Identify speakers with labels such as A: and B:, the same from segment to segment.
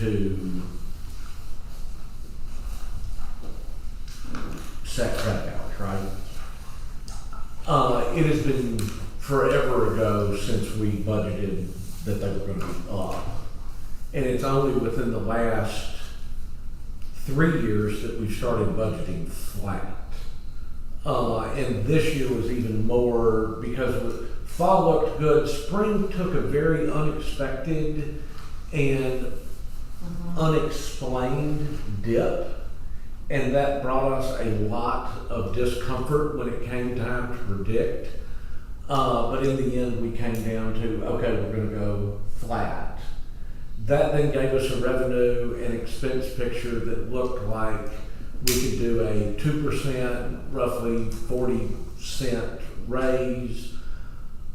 A: to set credit hours, right? Uh, it has been forever ago since we budgeted that they were gonna be up. And it's only within the last three years that we started budgeting flat. Uh, and this year was even more because with- fall looked good. Spring took a very unexpected and unexplained dip. And that brought us a lot of discomfort when it came time to predict. Uh, but in the end, we came down to okay, we're going to go flat. That then gave us a revenue and expense picture that looked like we could do a two percent, roughly forty cent raise.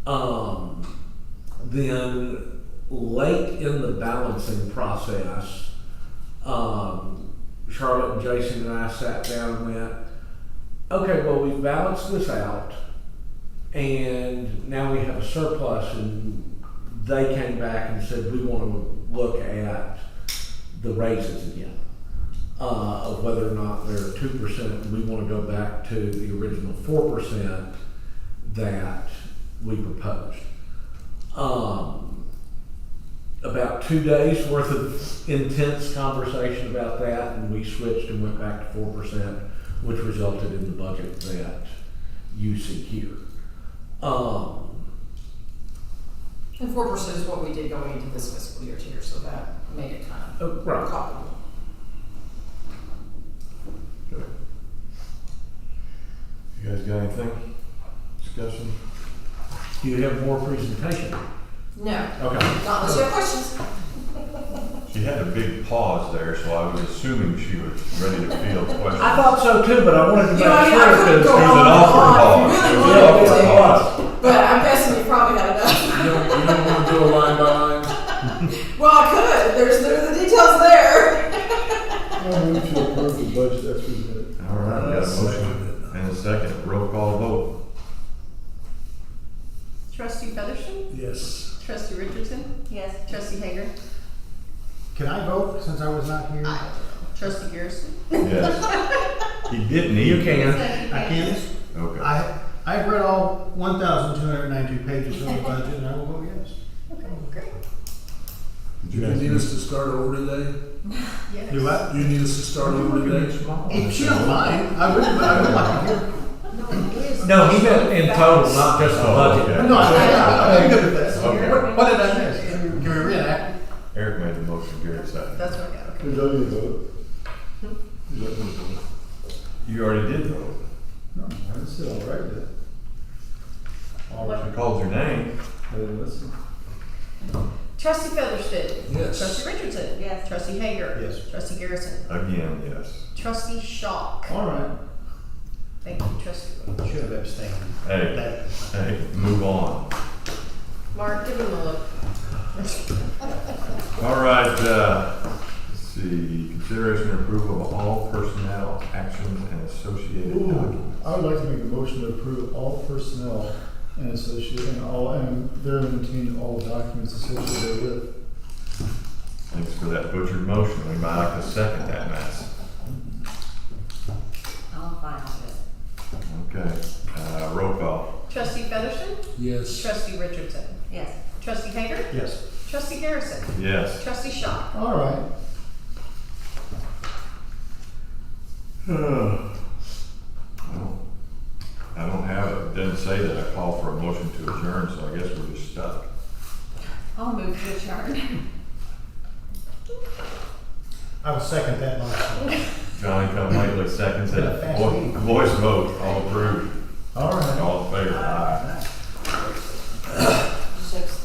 A: Um, then late in the balancing process, um, Charlotte and Jason and I sat down and went, okay, well, we've balanced this out and now we have a surplus and they came back and said, we want to look at the raises again. Uh, of whether or not they're two percent, we want to go back to the original four percent that we proposed. Um, about two days worth of intense conversation about that, and we switched and went back to four percent, which resulted in the budget that you see here. Um,
B: And four percent is what we did going into this fiscal year too, so that made it kind
A: oh,
B: of
A: right.
B: comparable.
C: You guys got anything? Discussion?
A: Do you have more presentation?
B: No,
A: Okay.
B: not unless you have questions.
D: She had a big pause there, so I was assuming she was ready to field questions.
A: I thought so too, but I wanted to make
B: You know, I mean, I
A: sure
B: could go
A: because.
D: It was
B: on
D: an
B: and
D: awkward
B: on
D: pause.
B: if
D: It
B: you
D: was
B: really wanted
D: an awkward
B: to,
D: pause.
B: but I'm guessing you probably had enough.
C: You don't, you don't wanna do a line by line?
B: Well, I could, there's, there's the details there.
E: I move to approve the budget that's presented.
D: All right, we got a motion and a second, roll call vote.
F: Trustee Featherston?
E: Yes.
F: Trustee Richardson? Yes. Trustee Hager?
G: Can I vote since I was not here?
F: Aye. Trustee Garrison?
D: Yes. He didn't
A: You
D: even.
A: can.
F: Trustee
G: I
F: Hager?
G: can't.
D: Okay.
G: I, I've read all 1,292 pages of the budget and I will vote yes.
F: Okay, great.
C: Did
E: You
C: you guys
E: need
C: do
E: us to start over today?
F: Yes.
G: Do what?
E: You need us to start over today?
G: If you don't mind, I would, but I would like to hear.
A: No, he meant in total, not just the
D: Oh,
A: budget.
D: okay.
G: No, I, I- I'm good with that.
D: Okay.
G: What- What did I miss? Can we can we reenact?
D: Eric made the motion, Gary seconded.
F: That's what I got, okay.
E: Who's up to vote? Who's up to vote?
D: You already did vote.
E: No, I just said all right then. All right,
D: She called your name.
E: I didn't listen.
F: Trustee Featherston?
E: Yes.
F: Trustee Richardson? Yes. Trustee Hager?
G: Yes.
F: Trustee Garrison?
D: Again, yes.
F: Trustee Shock?
G: All right.
F: Thank you, trustee. Wood.
G: Should have abstained.
D: Hey,
G: That-
D: hey, move on.
F: Mark, give him a look.
D: All right, uh, let's see, consideration and approval of all personnel actions and associated
E: Ooh,
D: documents.
E: I would like to make a motion to approve all personnel and associate and all, and therein contain all documents associated with.
D: Thanks for that butchered motion. We might like to second that mess.
B: Oh, fine,
D: Okay, uh, roll call.
F: Trustee Featherston?
E: Yes.
F: Trustee Richardson?
B: Yes.
F: Trustee Hager?
G: Yes.
F: Trustee Garrison?
D: Yes.
F: Trustee Shock?
E: All right.
D: I don't I don't have it. It Doesn't say that I call for a motion to adjourn, so I guess we're just stuck.
F: I'll move to adjourn.
G: I would second that motion.
D: Johnny come lately seconds it. Vo- Voice vote, all approved,
G: All right.
D: all in favor, aye.
G: All right.